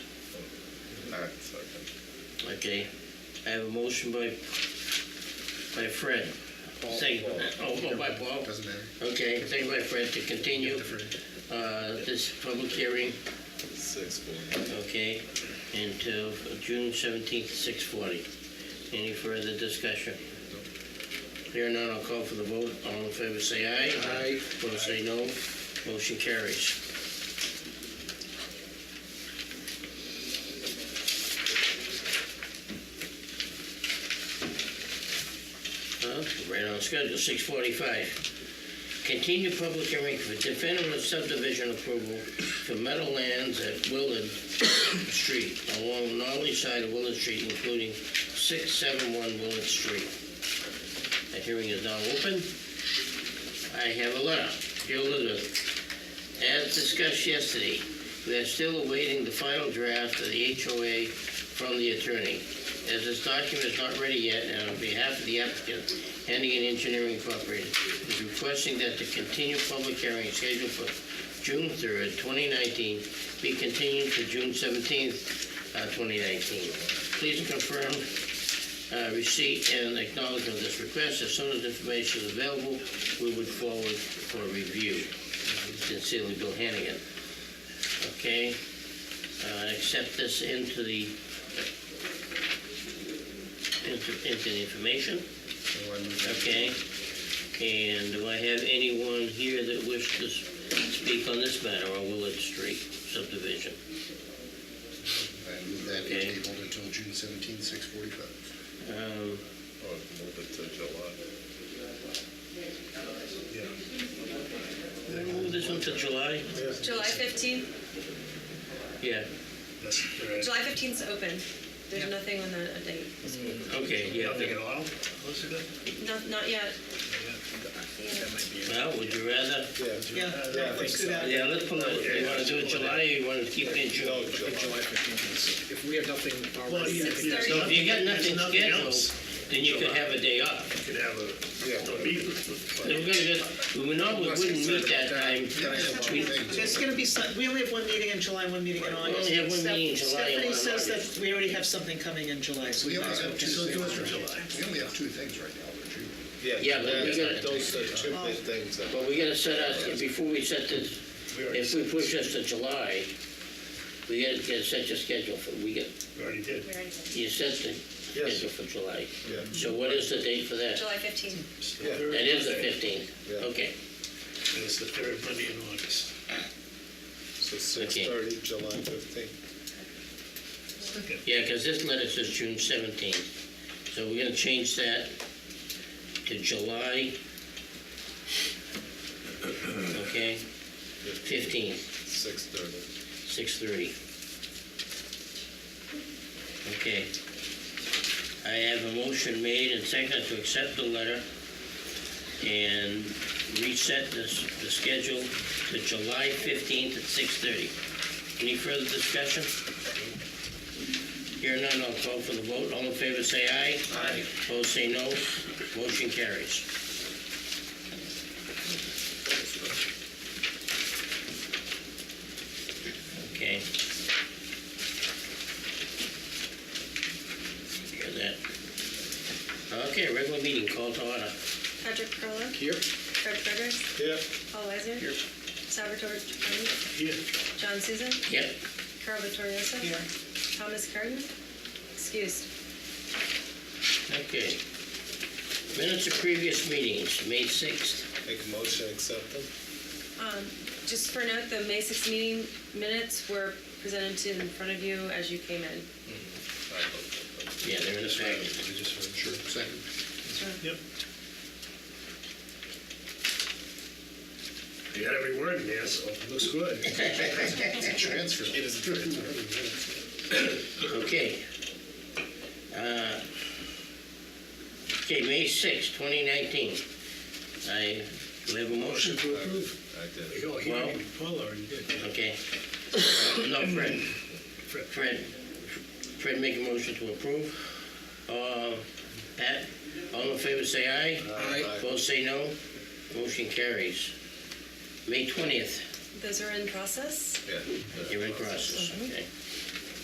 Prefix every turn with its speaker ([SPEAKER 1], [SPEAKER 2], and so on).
[SPEAKER 1] All right, second.
[SPEAKER 2] Okay, I have a motion by, by Fred. Second, oh, oh, by Paul.
[SPEAKER 1] Doesn't matter.
[SPEAKER 2] Okay, second by Fred to continue, uh, this public hearing,
[SPEAKER 1] Six, four.
[SPEAKER 2] okay, until June seventeenth, six forty. Any further discussion? Here none, I'll call for the vote. All in favor, say aye.
[SPEAKER 1] Aye.
[SPEAKER 2] Opposed, say no. Motion carries. Well, Right on schedule, six forty-five. Continue public hearing for definitive subdivision approval for Meadowlands at Willard Street along Nolly side of Willard Street, including six seven one Willard Street. The hearing is now open. I have a letter. Dear Elizabeth, as discussed yesterday, we are still awaiting the final draft of the HOA from the attorney. As this document is not ready yet, and on behalf of the applicant, Hennigan Engineering Incorporated is requesting that the continued public hearing scheduled for June 3rd, 2019, be continued to June 17th, uh, 2019. Please confirm uh, receipt and acknowledgement of this request. As soon as information is available, we would forward for review. Sincerely, Bill Hannigan. Okay? Uh, Accept this into the, into into the information, okay? And do I have anyone here that wishes to s- speak on this matter on Willard Street subdivision?
[SPEAKER 3] And that
[SPEAKER 2] Okay.
[SPEAKER 3] is tabled until June 17, 6:45.
[SPEAKER 2] Um,
[SPEAKER 1] Oh, move it to July.
[SPEAKER 2] Move this one to July?
[SPEAKER 4] July 15th,
[SPEAKER 2] Yeah,
[SPEAKER 4] July 15th's open. There's nothing on the a date.
[SPEAKER 2] okay, yeah.
[SPEAKER 5] Nothing at all?
[SPEAKER 4] Not, not yet.
[SPEAKER 2] Well, would you rather?
[SPEAKER 6] Yeah,
[SPEAKER 5] Yeah, I think
[SPEAKER 6] let's do
[SPEAKER 5] so.
[SPEAKER 6] that.
[SPEAKER 2] Yeah, let's pull it, you wanna do it July, or you wanna keep it in June?
[SPEAKER 5] July fifteenth. If we have nothing
[SPEAKER 6] Well,
[SPEAKER 5] already,
[SPEAKER 6] yeah,
[SPEAKER 5] we
[SPEAKER 4] Six
[SPEAKER 6] yeah,
[SPEAKER 4] thirty.
[SPEAKER 2] So if you got nothing
[SPEAKER 6] There's nothing
[SPEAKER 2] scheduled,
[SPEAKER 6] else.
[SPEAKER 2] then you could have a day off.
[SPEAKER 5] could have a, a meeting.
[SPEAKER 2] Then We're gonna just, we normally wouldn't meet that time. We-
[SPEAKER 6] There's gonna be some, we only have one meeting in July, one meeting in August.
[SPEAKER 2] only have one
[SPEAKER 6] Steph-
[SPEAKER 2] meeting in July and
[SPEAKER 6] Stephanie
[SPEAKER 2] one in
[SPEAKER 6] says that we already have something coming in July, so we
[SPEAKER 3] We
[SPEAKER 6] might
[SPEAKER 3] only
[SPEAKER 6] as well
[SPEAKER 3] have two
[SPEAKER 6] just do it.
[SPEAKER 3] things, we only have two things right now for June.
[SPEAKER 2] Yeah, but we gotta-
[SPEAKER 1] Those are two big things. that-
[SPEAKER 2] But we gotta set us, before we set this, if we push this to July, we gotta, gotta set your schedule for, we get,
[SPEAKER 5] We already did.
[SPEAKER 2] you set the
[SPEAKER 5] Yes.
[SPEAKER 2] schedule for July.
[SPEAKER 1] Yeah.
[SPEAKER 2] So what is the date for that?
[SPEAKER 4] July 15th.
[SPEAKER 2] That is the fifteenth,
[SPEAKER 1] Yeah.
[SPEAKER 2] okay.
[SPEAKER 5] It's the third Monday in August.
[SPEAKER 1] So six thirty, July fifteenth.
[SPEAKER 2] Yeah, because this letter says June seventeenth, so we're gonna change that to July, okay, fifteenth,
[SPEAKER 1] Six thirty.
[SPEAKER 2] six thirty. Okay. I have a motion made and seconded to accept the letter and reset this, the schedule to July fifteenth at six thirty. Any further discussion? Here none, I'll call for the vote. All in favor, say aye. Aye. Opposed, say no. Motion carries. Okay. Hear that? Okay, regular meeting called to order.
[SPEAKER 4] Patrick Perla.
[SPEAKER 5] Here?
[SPEAKER 4] Fred Fredericks.
[SPEAKER 5] Yeah.
[SPEAKER 4] Paul Weiser.
[SPEAKER 5] Here.
[SPEAKER 4] Salvatore Giovanni.
[SPEAKER 5] Here.
[SPEAKER 4] John Souza.
[SPEAKER 2] Yep,
[SPEAKER 4] Carl Vittorioso.
[SPEAKER 6] Here.
[SPEAKER 4] Thomas Curran. Excused.
[SPEAKER 2] okay. Minutes of previous meetings, May sixth.
[SPEAKER 1] Make a motion, accept them.
[SPEAKER 4] Um, Just for note, the May 6th meeting minutes were presented to in front of you as you came in.
[SPEAKER 2] Yeah, they're in effect.
[SPEAKER 3] Sure. Second.
[SPEAKER 5] Yep. You got every word in there, so it looks good.
[SPEAKER 3] Transfer. It is
[SPEAKER 2] Okay. Uh, Okay, May sixth, 2019. I, do we have a motion?
[SPEAKER 5] to approve.
[SPEAKER 1] I did it.
[SPEAKER 5] Oh, he
[SPEAKER 2] Well-
[SPEAKER 5] already, Paul already did.
[SPEAKER 2] Okay. No, Fred. Fred, Fred make a motion to approve. Uh, Pat, all in favor, say aye.
[SPEAKER 1] Aye.
[SPEAKER 2] Opposed, say no. Motion carries. May 20th,
[SPEAKER 4] Those are in process.
[SPEAKER 1] Yeah.
[SPEAKER 2] you're in process, okay.